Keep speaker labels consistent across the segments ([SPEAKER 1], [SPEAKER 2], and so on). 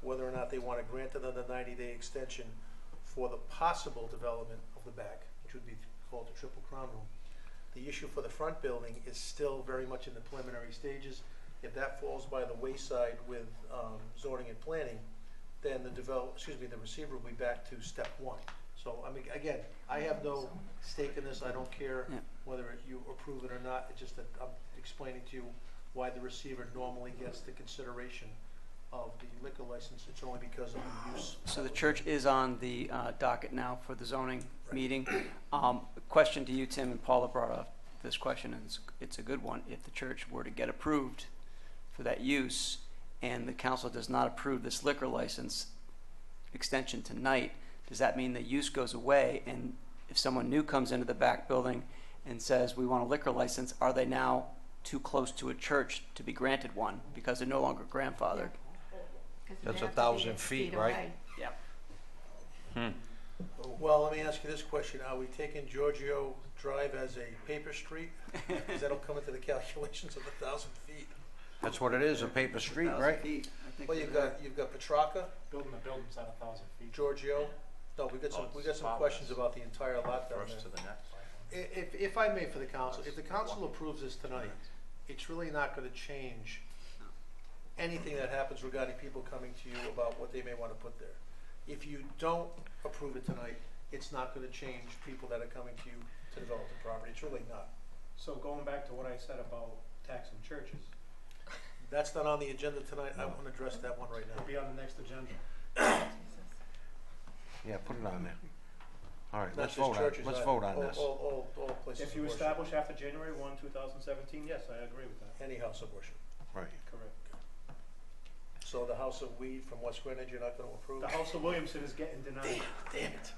[SPEAKER 1] whether or not they want to grant another ninety-day extension for the possible development of the back, which would be called the triple crown room. The issue for the front building is still very much in the preliminary stages. If that falls by the wayside with um, zoning and planning, then the develop, excuse me, the receiver will be back to step one. So, I mean, again, I have no stake in this, I don't care
[SPEAKER 2] Yeah.
[SPEAKER 1] whether you approve it or not, it's just that I'm explaining to you why the receiver normally gets the consideration of the liquor license, it's only because of the use.
[SPEAKER 2] So the church is on the uh, docket now for the zoning meeting. Um, Question to you, Tim, and Paula brought up this question, and it's, it's a good one. If the church were to get approved for that use, and the council does not approve this liquor license extension tonight, does that mean the use goes away? And if someone new comes into the back building and says, we want a liquor license, are they now too close to a church to be granted one, because they're no longer grandfathered?
[SPEAKER 3] That's a thousand feet, right?
[SPEAKER 2] Yep.
[SPEAKER 1] Well, let me ask you this question, are we taking Giorgio Drive as a paper street? Because that'll come into the calculations of a thousand feet.
[SPEAKER 3] That's what it is, a paper street, right?
[SPEAKER 1] Well, you've got, you've got Petrarca,
[SPEAKER 4] Building the building's at a thousand feet.
[SPEAKER 1] Giorgio, no, we've got some, we've got some questions about the entire lot down there. I- If, if I may for the council, if the council approves this tonight, it's really not gonna change anything that happens regarding people coming to you about what they may wanna put there. If you don't approve it tonight, it's not gonna change people that are coming to you to develop the property, it's really not.
[SPEAKER 4] So going back to what I said about taxing churches,
[SPEAKER 1] That's not on the agenda tonight, I wanna address that one right now.
[SPEAKER 4] it'll be on the next agenda.
[SPEAKER 3] Yeah, put it on there. All right,
[SPEAKER 1] Not
[SPEAKER 3] let's
[SPEAKER 1] just
[SPEAKER 3] vote on,
[SPEAKER 1] churches,
[SPEAKER 3] let's
[SPEAKER 1] I-
[SPEAKER 3] vote on
[SPEAKER 1] all-
[SPEAKER 3] this.
[SPEAKER 1] All, all, all places
[SPEAKER 4] If you
[SPEAKER 1] of worship.
[SPEAKER 4] establish after January one, two thousand seventeen, yes, I agree with that.
[SPEAKER 1] any house of worship.
[SPEAKER 3] Right.
[SPEAKER 4] Correct.
[SPEAKER 1] So the house of weed from West Greenwich, you're not gonna approve?
[SPEAKER 4] The House of Williamson is getting denied.
[SPEAKER 1] Damn it.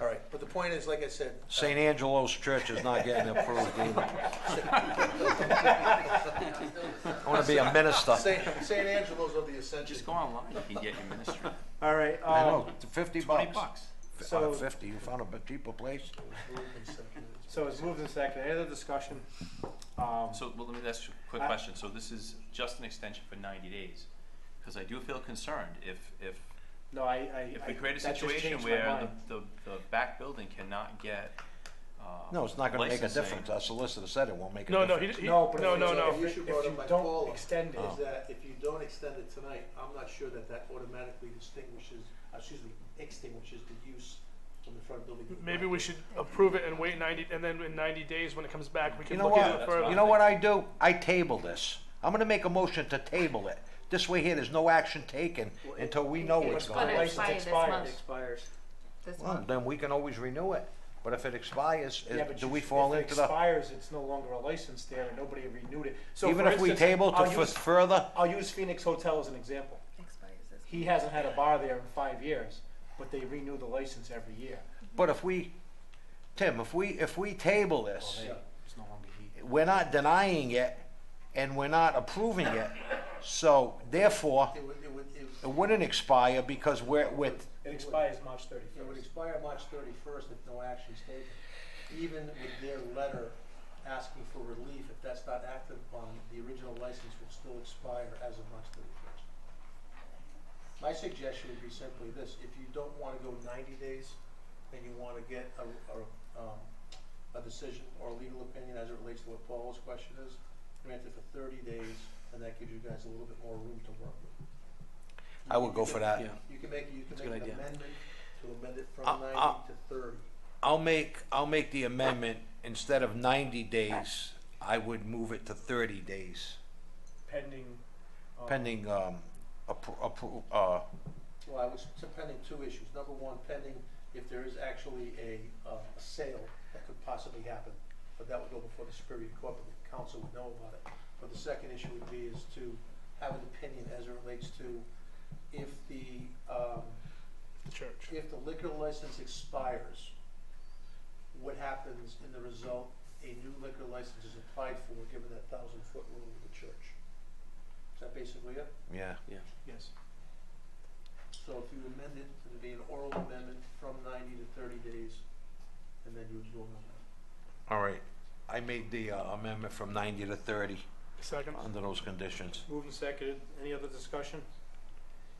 [SPEAKER 1] All right, but the point is, like I said,
[SPEAKER 3] St. Angelo's Church is not getting approved either. I wanna be a minister.
[SPEAKER 1] Saint, Saint Angelo's of the Ascension.
[SPEAKER 5] Just go online, you can get your ministry.
[SPEAKER 4] All right, um,
[SPEAKER 3] I know, fifty
[SPEAKER 5] Twenty
[SPEAKER 3] bucks.
[SPEAKER 5] bucks.
[SPEAKER 3] F- uh,
[SPEAKER 4] So-
[SPEAKER 3] Fifty, you found a bit cheaper place?
[SPEAKER 4] so it's moved and seconded. Any other discussion? Um,
[SPEAKER 5] So, well, let me ask you a quick
[SPEAKER 4] I-
[SPEAKER 5] question. So this is just an extension for ninety days? Because I do feel concerned if, if,
[SPEAKER 4] no, I, I.
[SPEAKER 5] if
[SPEAKER 4] I-
[SPEAKER 5] we create a
[SPEAKER 4] that just
[SPEAKER 5] situation
[SPEAKER 4] changed my
[SPEAKER 5] where
[SPEAKER 4] mind.
[SPEAKER 5] the, the, the back building cannot get, uh,
[SPEAKER 3] No, it's not gonna make a
[SPEAKER 5] licensing.
[SPEAKER 3] difference. Our solicitor said it won't make a
[SPEAKER 6] eh? No,
[SPEAKER 3] difference.
[SPEAKER 6] no, he, he,
[SPEAKER 4] No,
[SPEAKER 6] no,
[SPEAKER 4] but
[SPEAKER 6] no,
[SPEAKER 4] if it's-
[SPEAKER 6] no.
[SPEAKER 1] The issue
[SPEAKER 4] If
[SPEAKER 1] brought
[SPEAKER 4] you
[SPEAKER 1] up Oh. by
[SPEAKER 4] don't
[SPEAKER 1] Paula is
[SPEAKER 4] extend it,
[SPEAKER 1] that if you don't extend it tonight, I'm not sure that that automatically distinguishes, uh, excuse me, extinguishes the use from the front building. to the
[SPEAKER 6] Maybe
[SPEAKER 1] back
[SPEAKER 6] we should approve it and wait ninety, and then in ninety days, when it comes back, we
[SPEAKER 3] You
[SPEAKER 6] can
[SPEAKER 3] know
[SPEAKER 6] look at it
[SPEAKER 3] what?
[SPEAKER 5] that's
[SPEAKER 6] further.
[SPEAKER 3] You know what I do? I table this. I'm gonna make a motion to table it. This way here, there's no action taken until we know what's
[SPEAKER 7] It's
[SPEAKER 3] going
[SPEAKER 7] gonna
[SPEAKER 3] on.
[SPEAKER 4] license
[SPEAKER 7] expire this
[SPEAKER 4] expires.
[SPEAKER 7] month,
[SPEAKER 2] Expires.
[SPEAKER 7] this
[SPEAKER 3] Well,
[SPEAKER 7] month.
[SPEAKER 3] then we can always renew it. But if it expires, is-
[SPEAKER 4] Yeah, but
[SPEAKER 3] do
[SPEAKER 4] you-
[SPEAKER 3] we fall into
[SPEAKER 4] If it
[SPEAKER 3] the,
[SPEAKER 4] expires, it's no longer a license there and nobody renewed it. So
[SPEAKER 3] even
[SPEAKER 4] for
[SPEAKER 3] if we
[SPEAKER 4] instance,
[SPEAKER 3] table to
[SPEAKER 4] I'll use-
[SPEAKER 3] f- further?
[SPEAKER 4] I'll use Phoenix Hotel as an example.
[SPEAKER 7] Expires this
[SPEAKER 4] He hasn't had a bar there in five years, but they renew the license every year.
[SPEAKER 3] But if we, Tim, if we, if we table this,
[SPEAKER 4] They- It's no longer he.
[SPEAKER 3] we're not denying it and we're not approving it. So therefore,
[SPEAKER 1] It would, it would, it
[SPEAKER 3] it wouldn't expire because we're, we're,
[SPEAKER 4] It expires March
[SPEAKER 1] it would
[SPEAKER 4] thirty-first.
[SPEAKER 1] expire March thirty-first if no action is taken. Even with their letter asking for relief, if that's not acted upon, the original license will still expire as of March thirty-first. My suggestion would be simply this, if you don't wanna go ninety days, and you wanna get a, a, um, a decision or a legal opinion as it relates to what Paul's question is, grant it for thirty days, and that gives you guys a little bit more room to work with.
[SPEAKER 3] I would go for that.
[SPEAKER 1] You can make, you
[SPEAKER 2] That's a
[SPEAKER 1] can make
[SPEAKER 2] good
[SPEAKER 1] an
[SPEAKER 2] idea.
[SPEAKER 1] amendment to amend it from
[SPEAKER 3] Uh, uh,
[SPEAKER 1] ninety to thirty.
[SPEAKER 3] I'll make, I'll make the amendment, instead of ninety days, I would move it to thirty days,
[SPEAKER 4] Pending. um,
[SPEAKER 3] pending, um, appro- appro- uh,
[SPEAKER 1] Well, I was t- pending two issues. Number one, pending if there is actually a, uh, a sale that could possibly happen, but that would go before the Superior Court, but the council would know about it. But the second issue would be is to have an opinion as it relates to if the, um,
[SPEAKER 6] The church.
[SPEAKER 1] if the liquor license expires, what happens in the result, a new liquor license is applied for, given that thousand foot rule of the church. Is that basically it?
[SPEAKER 3] yeah.
[SPEAKER 4] Yes.
[SPEAKER 1] So if you amend it, it'd be an oral amendment from ninety to thirty days, and then you would vote on that.
[SPEAKER 3] All right, I made the uh, amendment from ninety to thirty
[SPEAKER 6] Second.
[SPEAKER 3] under those conditions.
[SPEAKER 4] Moved and seconded. Any other discussion?